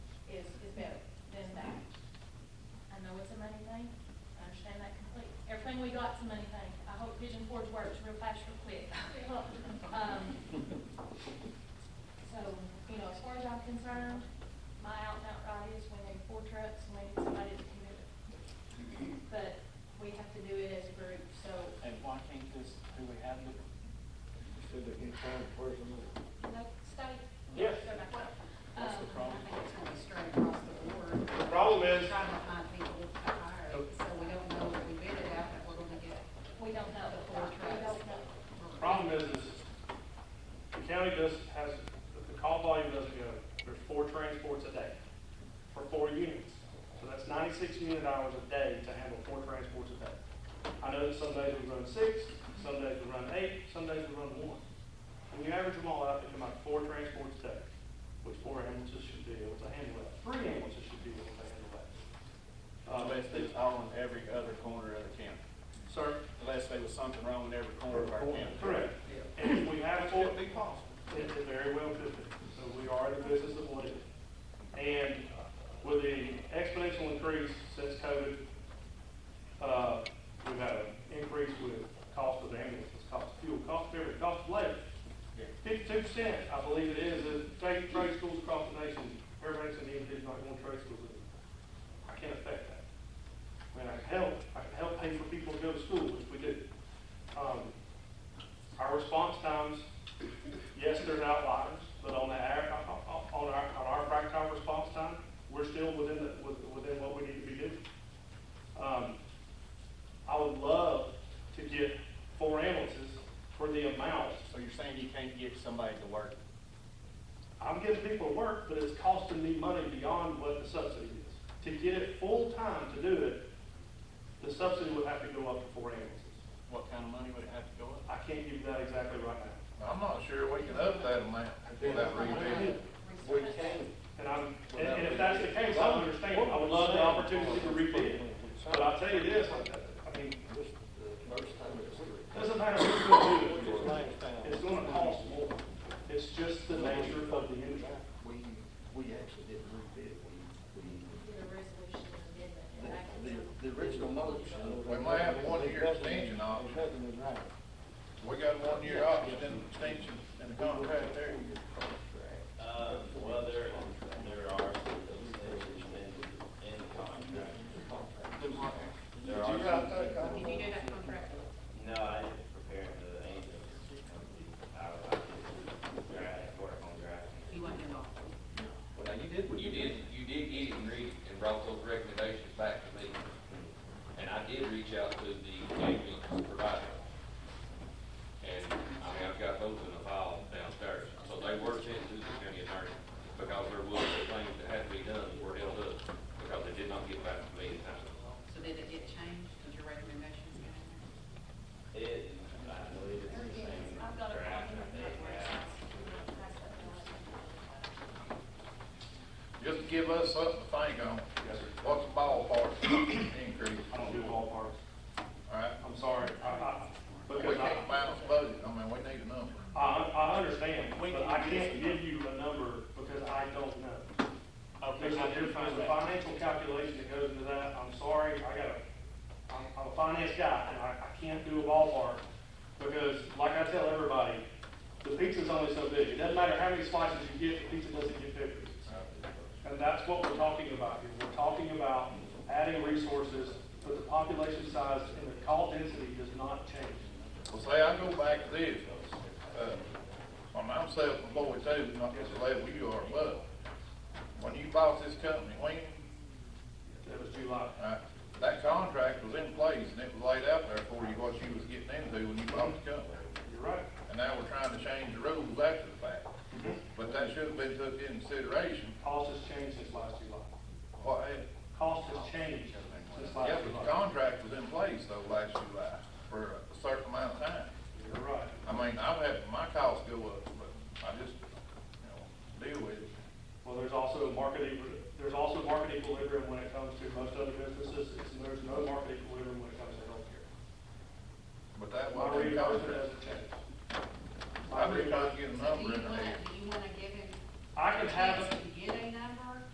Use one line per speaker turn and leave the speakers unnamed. that's a money thing. I hope Pigeon Forge works real fast, real quick. Um, So, you know, as far as I'm concerned, my out and out right is we need four trucks, and we need somebody to commit it. But we have to do it as a group, so
And why can't this, do we have the?
Said they can't find a person.
no study.
Yes.
Go back up.
What's the
Um,
problem?
I think it's gonna be straight across the board.
The problem is-
Trying to find people to hire, so we don't know if we bid it out, that we're gonna get.
We don't know.
The four
We don't
trucks.
know.
The Problem is, is the county does, has, the call volume doesn't go, there's four transports a day for four units. So that's ninety-six unit hours a day to handle four transports a day. I know that some days we run six, some days we run eight, some days we run one. When you average them all out, they come out to four transports a day, which four ambulances should be able to handle that, three ambulances should be able to handle that.
Uh, Unless it's all in every other corner of the county.
Sir?
Unless there was something wrong in every corner of our county.
Correct. And if we have
That
four,
could be possible.
It it very well could be. So we are in the business of what it is. And with the exponential increase since COVID, uh, we've had an increase with cost of ambulances, cost of fuel, cost of everything, cost of labor.
Yeah.
Fifty-two percent, I believe it is, of state trade schools across the nation, everybody's in the individual, like one trade school. I can't affect that. I mean, I can help, I can help pay for people to go to school, which we do. Um, Our response times, yes, there's outliers, but on the, aver- on on our, on our practical response time, we're still within the, with- within what we need to be doing. Um, I would love to get four ambulances for the amount.
So you're saying you can't get somebody to work?
I'm getting people to work, but it's costing me money beyond what the subsidy is. To get it full-time to do it, the subsidy would have to go up to four ambulances.
What kind of money would it have to go up?
I can't give you that exactly right now.
I'm not sure we can up that amount without rebidding.
We can.
And I'm, and and if that's the case, I understand, I would love the opportunity to rebid. But I'll tell you this, I mean,
This is the first time it's.
doesn't matter who's gonna do
It's
it,
last time.
it's gonna cost more. It's just the nature of the industry.
We, we actually didn't rebid, it. we,
Did a resolution amendment,
we,
and I can
the,
tell-
the original motion.
We might have one year extension on it.
Nothing was right.
We got one year option and extension in the contract there.
Uh, well, there, there are some things in, in the contract. There are some-
Can you do that contract?
No, I didn't prepare the angels. I, I did, draft, work on drafting.
You want him off?
Well, now you did. what
You did, you did get it and read it and brought those recommendations back to me. And I did reach out to the ambulance provider. And, I mean, I've got those in a file downstairs, so they were sent to the county attorney, because there was some things that had to be done that were held up, because they did not get back to me in time.
So did it get changed? Did your recommendations get in there?
It, I believe it's the same
I've got a
draft
problem
that
with
they
that.
have.
Just give us something to think on.
Yes, sir.
What's the ballpark increase?
I don't do all parts.
All right?
I'm sorry, I, I,
We
because
can't
I,
balance budget. I mean, we need a number.
I, I understand, but I can't give you a number because I don't know. There's a, there's a financial calculation that goes into that, I'm sorry, I gotta, I'm, I'm a finance guy, and I, I can't do a ballpark, because like I tell everybody, the pizza's only so big, it doesn't matter how many slices you get, the pizza doesn't get bigger. And that's what we're talking about here, we're talking about adding resources, but the population size and the call density does not change.
Well, say, I go back to this, uh, my mom's self-employed too, not just the level you are, but when you bought this company, when
That was July.
Right. That contract was in place and it was laid out there for you, what you was getting into when you bought the company.
You're right. Mm-hmm.
And now we're trying to change the rules after the fact. But that should have been took into consideration.
Cost has changed since last July.
What, had-
Cost has changed since
yeah,
last
but the
July.
contract was in place though last July for a certain amount of time.
You're right.
I mean, I would have, my costs go up, but I just, you know, deal with it.
Well, there's also a market, equi- there's also market equilibrium when it comes to most other businesses, and there's no market equilibrium when it comes to healthcare.
But that
My
wasn't in the
reimbursement
contract.
hasn't changed. My
I'm just trying to get a
reimbursement,
So do
number
you
in
wanna,
there.
do you wanna give him?
I can have,
Yes,